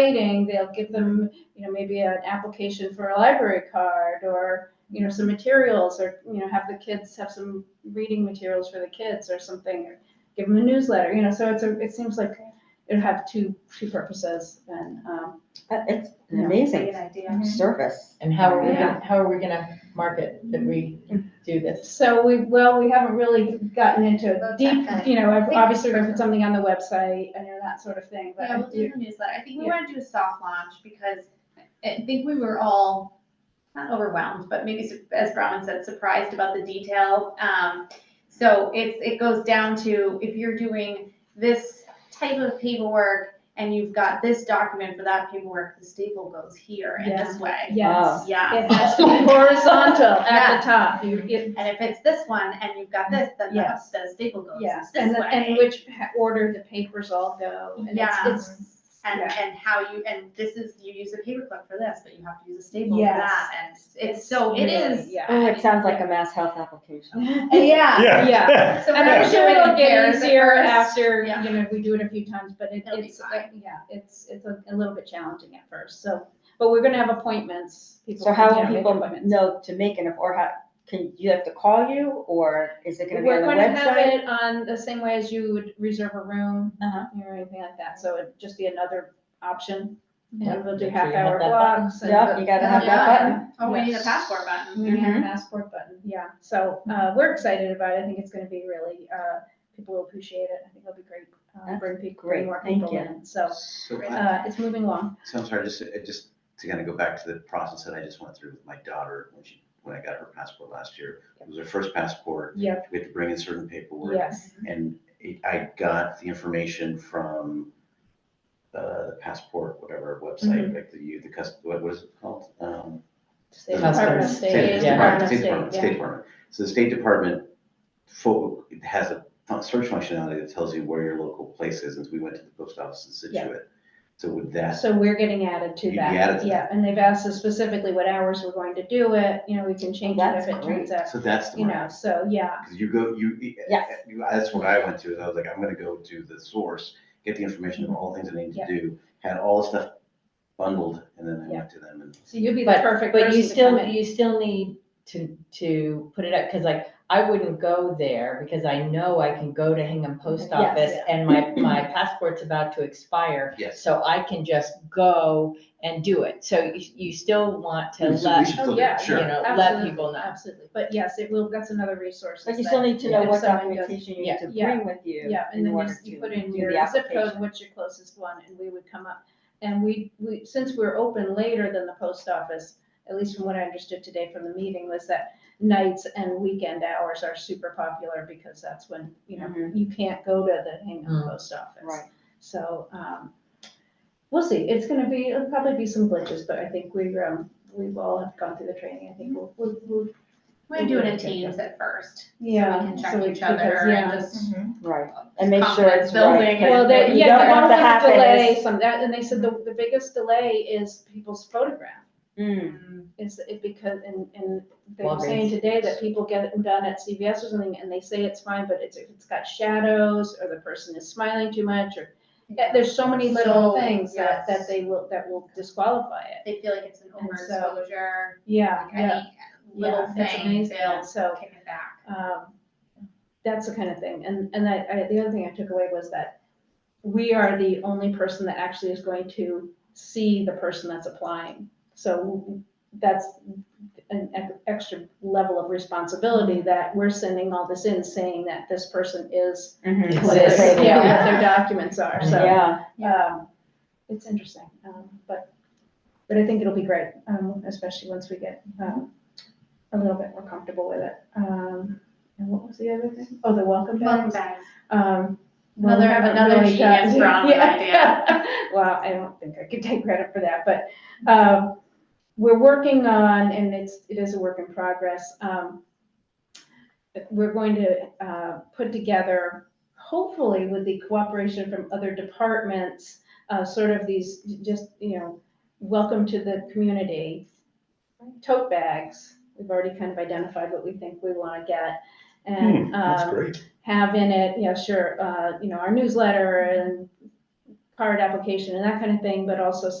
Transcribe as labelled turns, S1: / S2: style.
S1: waiting, they'll give them, you know, maybe an application for a library card or, you know, some materials or, you know, have the kids have some reading materials for the kids or something, or give them a newsletter, you know, so it's a, it seems like it'd have two, two purposes and, um,
S2: Uh, It's an
S1: Yeah.
S2: amazing Mm-hmm.
S1: Mhm.
S3: idea.
S2: service.
S3: And how are we,
S1: Yeah.
S3: gonna- how are we gonna market that we do this?
S1: so we, well, we haven't really gotten into
S4: Oh,
S1: deep, you know, I've- obviously we're gonna put something on the website and you know, that sort of thing, but
S4: Yeah,
S1: I
S4: we'll do
S1: do,
S4: the newsletter. I think we
S1: Yeah.
S4: want to do a soft launch because I think we were all not overwhelmed, but maybe su- as Bronwyn said, surprised about the detail. Um, so it's, it goes down to if you're doing this type of paperwork and you've got this document for that paperwork, the staple goes here in this
S1: Yes.
S4: way.
S1: yes.
S4: Yeah.
S1: It has to be horizontal at the top, you, it,
S4: And if it's this one and you've got this, then the,
S1: Yes.
S4: the staple goes
S1: Yes,
S4: this
S1: and, the- and
S4: way.
S1: which ha- order the papers all go, and it's,
S4: Yeah.
S1: it's.
S4: And,
S1: yeah.
S4: and how you, and this is, you use a paperclip for this, but you have to use a staple for
S1: Yes.
S4: that. And it's, so it
S1: really-
S4: is
S1: Yeah.
S2: Oh, it sounds like a mass health application.
S4: Yeah.
S1: Yeah.
S4: So
S1: And
S4: we're
S1: I'm
S4: not
S1: sure
S4: doing
S1: it'll get
S4: pairs at
S1: easier
S4: first.
S1: after,
S4: Yeah.
S1: you know, we do it a few times, but it,
S4: It'll be
S1: it's,
S4: fine.
S1: yeah, it's, it's a, a little bit challenging at first, so. But we're gonna have appointments. people can,
S2: So how
S1: you know,
S2: will
S1: make
S2: people
S1: appointments.
S2: know to make an, or how, can, you have to call you, or is it gonna be on
S1: We're
S2: the
S1: gonna have
S2: website?
S1: it on the same way as you would reserve a room,
S2: Uh-huh.
S1: or anything like that, so it'd just be another option.
S3: Yeah.
S1: And we'll do
S3: Make sure
S1: half
S3: you have
S1: hour
S3: that button.
S1: blocks and.
S2: Yep, you gotta have that
S4: Yeah.
S2: button.
S4: Oh, we need
S1: Yes.
S4: a passport button.
S1: We have a
S3: Mm-hmm.
S2: Mhm.
S1: passport button, yeah. So uh, we're excited about it. I think it's going to be really, uh, people will appreciate it. I think it'll be great. uh,
S2: That's
S1: Bring people,
S2: great.
S1: bring more
S2: Thank
S1: people
S2: you.
S1: in. So
S5: So,
S4: Right.
S5: I-
S1: uh, it's moving along.
S5: so I'm sorry, just, uh, just to kind of go back to the process that I just went through with my daughter when she, when I got her passport last year. It was her first passport.
S1: Yep,
S5: We had to bring in certain paperwork.
S1: yes.
S5: And it- I got the information from uh, the passport, whatever website, like the, you, the cus, what what is it called? Um,
S1: State
S3: Customs.
S1: Department of
S3: State,
S1: State,
S3: yeah.
S1: Department of
S5: State
S1: State,
S5: Department, State
S1: yeah.
S5: Department. So the State Department fo- it has a fun- search functionality that tells you where your local place is. And so we went to the post office in
S1: Yeah.
S5: Situate. So would that,
S1: So we're getting added to
S5: You'd be added
S1: that.
S5: to
S1: Yeah, and they've asked us specifically what hours we're going to do it. You know, we can change it if
S2: That's
S1: it turns out,
S5: so that's the.
S1: you
S5: mark.
S1: know, so yeah.
S5: Because you go, you,
S2: Yes.
S5: you- that's what I went to, is I was like, I'm gonna go to the source, get the information of all the things I need to
S1: Yeah.
S5: do, had all the stuff bundled, and then I went to them and.
S1: So you'd be the perfect
S3: But
S1: person
S3: you
S1: to come
S3: still,
S1: in.
S3: you still need to, to put it up, because like, I wouldn't go there because I know I can go to Hingham Post
S1: Yes.
S3: Office and my, my passport's about to expire.
S5: Yes.
S3: So I can just go and do it. So you, you still want to
S5: We should- we
S3: let,
S5: should
S1: Oh,
S5: still do it,
S1: yeah,
S3: you
S5: Sure,
S3: know, let
S1: Absolutely,
S3: people know.
S1: Absolutely. But yes, it will, that's another resource.
S2: But you
S1: is
S2: still
S1: that-
S2: need to know
S1: if
S2: what
S1: someone
S2: documentation you
S3: yeah,
S2: need to
S1: yeah,
S2: bring with you.
S1: Yeah, and
S2: in
S1: then you,
S2: order
S1: s- you
S2: to
S1: put in
S2: do
S1: your
S2: the
S1: zip code,
S2: application.
S1: what's your closest one, and we would come up. And we, we, since we're open later than the post office, at least from what I understood today from the meeting, was that nights and weekend hours are super popular because that's when, you know,
S2: Mhm.
S1: you can't go to the Hingham
S3: Mm.
S1: post office.
S2: Right.
S1: So, um, we'll see. It's gonna be, it'll probably be some glitches, but I think we, um, we've all have gone through the training. I think we'll, we'll, we'll-
S4: We're doing it in teams at first.
S1: yeah.
S4: So we can
S1: so
S4: check each
S1: because,
S4: other
S1: yeah.
S4: and just.
S2: Right, and make sure
S4: confidence
S2: it's right.
S4: building
S2: 'cause
S4: and-
S1: Well, they,
S2: what you
S1: yeah,
S2: don't
S1: they
S2: want
S1: want
S2: to
S1: to
S2: happen
S1: delay
S2: is-
S1: some, that, and they said the, the biggest delay is people's photograph,
S2: Mm,
S1: is it because, and, and they were saying
S3: Walgreens.
S1: today that people get it done at CVS or something, and they say it's fine, but it's, it's got shadows, or the person is smiling too much, or, yeah, there's so many little
S4: So,
S1: things that, that
S4: yes.
S1: they will, that will disqualify it,
S4: They feel like it's an
S1: And so-
S4: overexposure,
S1: yeah,
S4: like
S1: yeah.
S4: any little
S1: yeah, it's
S4: thing,
S1: amazing,
S4: they'll
S1: So,
S4: kick it back.
S1: um, that's the kind of thing. And, and I, I, the other thing I took away was that we are the only person that actually is going to see the person that's applying. So that's an ex- extra level of responsibility that we're sending all this in, saying that this person is
S2: mhm.
S3: Exists.
S1: what they say they are, what their
S4: Yeah.
S1: documents are, so,
S2: Yeah,
S1: um, it's interesting, um, but, but I think it'll be great, um, especially once we get, um, a little bit more comfortable with it. Um, and what was the other thing? Oh, the welcome
S4: Welcome
S1: bags.
S4: back.
S1: Um, well, we
S4: Another-
S1: haven't
S4: another
S1: really
S4: genius
S1: gotten-
S4: Brown
S1: Yeah.
S4: idea.
S1: Well, I don't think I could take credit for that, but, um, we're working on, and it's, it is a work in progress, um, we're going to, uh, put together, hopefully with the cooperation from other departments, uh, sort of these, just, you know, welcome to the community, tote bags. We've already kind of identified what we think we want to get. And, um,
S6: great.
S1: have in it, yeah, sure, uh, you know, our newsletter and card application and that kind of thing, but also